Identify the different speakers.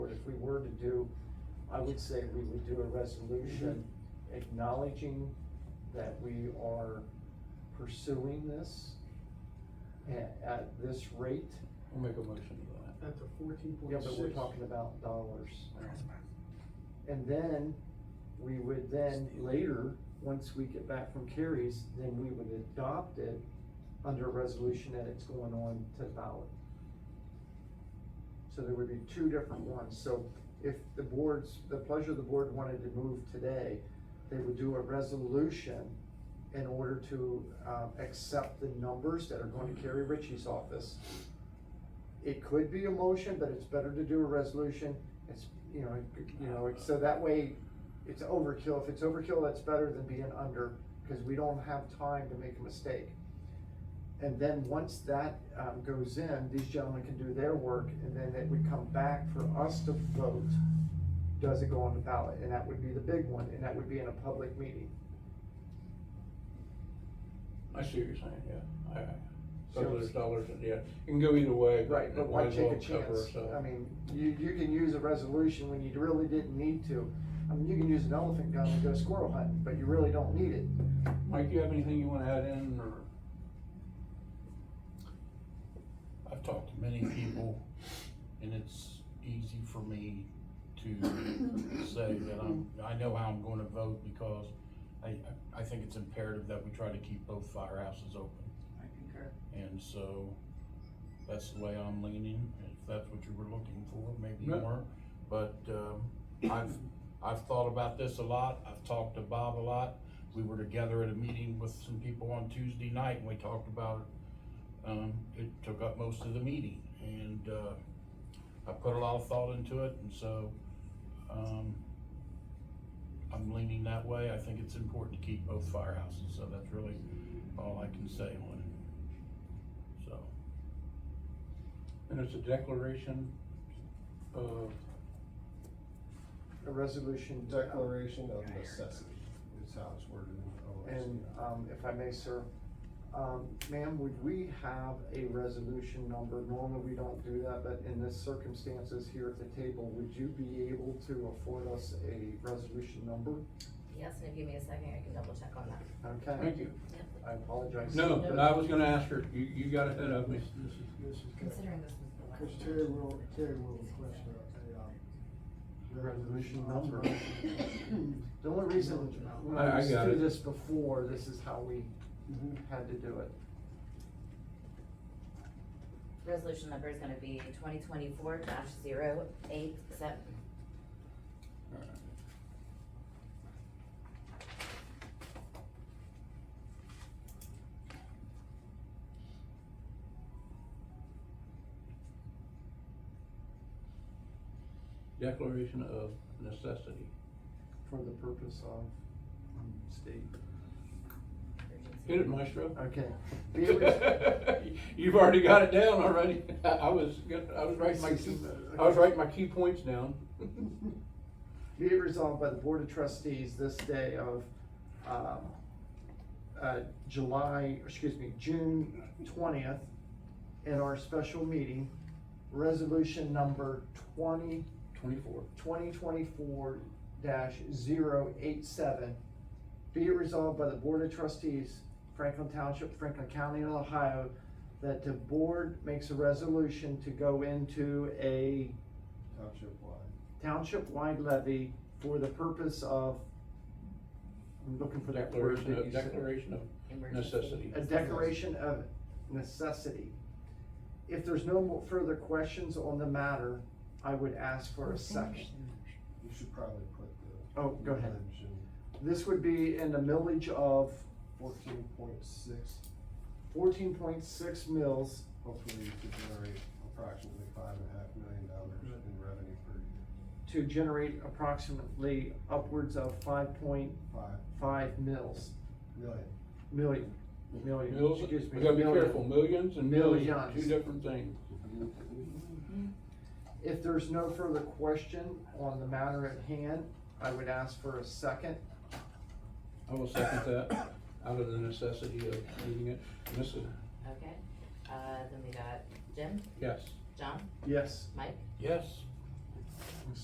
Speaker 1: if we were to do, I would say we would do a resolution acknowledging that we are pursuing this at, at this rate.
Speaker 2: I'll make a motion to
Speaker 3: At the fourteen
Speaker 1: Yeah,
Speaker 3: point six.
Speaker 1: but we're talking about dollars. And then, we would then later, once we get back from Carrie's, then we would adopt it under a resolution that it's going on to ballot. So there would be two different ones. So if the boards, the pleasure of the board wanted to move today, they would do a resolution in order to, um, accept the numbers that are going to Carrie Ritchie's office. It could be a motion, but it's better to do a resolution. It's, you know, you know, so that way it's overkill. If it's overkill, that's better than being under, because we don't have time to make a mistake. And then once that, um, goes in, these gentlemen can do their work, and then it would come back for us to vote. Does it go on the ballot? And that would be the big one, and that would be in a public meeting.
Speaker 2: that. I see what you're saying, yeah, I, I, so
Speaker 1: So-
Speaker 2: there's dollars, in- yeah, it can go either way.
Speaker 1: Right, but
Speaker 2: it
Speaker 1: why
Speaker 2: might as well
Speaker 1: take a
Speaker 2: cover
Speaker 1: chance?
Speaker 2: itself.
Speaker 1: I mean, you, you can use a resolution when you really didn't need to. I mean, you can use an elephant gun and go squirrel hunting, but you really don't need it.
Speaker 2: Mike, you have anything you wanna add in, or?
Speaker 4: I've talked to many people, and it's easy for me to say that I'm, I know how I'm gonna vote because I, I think it's imperative that we try to keep both firehouses open.
Speaker 5: I concur.
Speaker 4: And so, that's the way I'm leaning, if that's what you were looking for, maybe
Speaker 2: No.
Speaker 4: you weren't. But, um, I've, I've thought about this a lot, I've talked to Bob a lot. We were together at a meeting with some people on Tuesday night, and we talked about, it. um, it took up most of the meeting. And, uh, I put a lot of thought into it, and so, um, I'm leaning that way. I think it's important to keep both firehouses, so that's really all I can say on it. So,
Speaker 2: And it's a declaration Uh, of,
Speaker 1: A resolution. uh,
Speaker 3: Declaration of necessity is how it's worded in OSC.
Speaker 1: And, um, if I may, sir, um, ma'am, would we have a resolution number? Normally, we don't do that, but in this circumstances here at the table, would you be able to afford us a resolution number?
Speaker 5: Yes, and if you give me a second, I can double check on that.
Speaker 1: Okay,
Speaker 2: thank you.
Speaker 1: I apologize.
Speaker 2: No,
Speaker 1: But-
Speaker 2: but I was gonna ask her, you, you got ahead of me.
Speaker 3: This this is, this is.
Speaker 5: Considering this was the last.
Speaker 3: Cause Terry will, Terry will request a, a, um.
Speaker 1: Resolution number. The only reason, when
Speaker 2: I- I
Speaker 1: we
Speaker 2: got
Speaker 1: do
Speaker 2: it.
Speaker 1: this before, this is how we
Speaker 3: Mhm.
Speaker 1: had to do it.
Speaker 5: Resolution number is gonna be twenty twenty-four dash zero eight seven.
Speaker 2: Declaration of necessity.
Speaker 1: For the purpose of um, state.
Speaker 2: Hit it, maestro.
Speaker 1: Okay. Be it-
Speaker 2: You've already got it down already. I, I was, gonna- I was writing my key, I was writing my key points down.
Speaker 1: Be it resolved by the Board of Trustees this day of, um, uh, July, excuse me, June twentieth, in our special meeting, resolution number twenty
Speaker 2: Twenty-four.
Speaker 1: twenty twenty-four dash zero eight seven. Be it resolved by the Board of Trustees, Franklin Township, Franklin County, Ohio, that the board makes a resolution to go into a
Speaker 3: Township wide.
Speaker 1: township-wide levy for the purpose of, I'm looking for that word
Speaker 2: Declaration
Speaker 1: that
Speaker 2: of,
Speaker 1: you said.
Speaker 2: declaration of necessity.
Speaker 1: A declaration of necessity. If there's no more further questions on the matter, I would ask for a second.
Speaker 3: You should probably put the.
Speaker 1: Oh, go ahead.
Speaker 3: times in
Speaker 1: This would be in the millage of
Speaker 3: Fourteen point six,
Speaker 1: fourteen point six mils,
Speaker 3: hopefully to generate approximately five and a half million dollars in revenue per year.
Speaker 1: to generate approximately upwards of five point
Speaker 3: Five
Speaker 1: five mils,
Speaker 3: million.
Speaker 1: million, million,
Speaker 2: Mils,
Speaker 1: excuse me.
Speaker 2: we gotta be
Speaker 1: million.
Speaker 2: careful, millions and millions, two
Speaker 1: Millions.
Speaker 2: different things.
Speaker 1: If there's no further question on the matter at hand, I would ask for a second.
Speaker 2: I will second that, out of the necessity of needing it. Mrs.,
Speaker 5: Okay, uh, then we got Jim,
Speaker 2: yes,
Speaker 5: John,
Speaker 1: Yes.
Speaker 5: Mike,
Speaker 4: yes,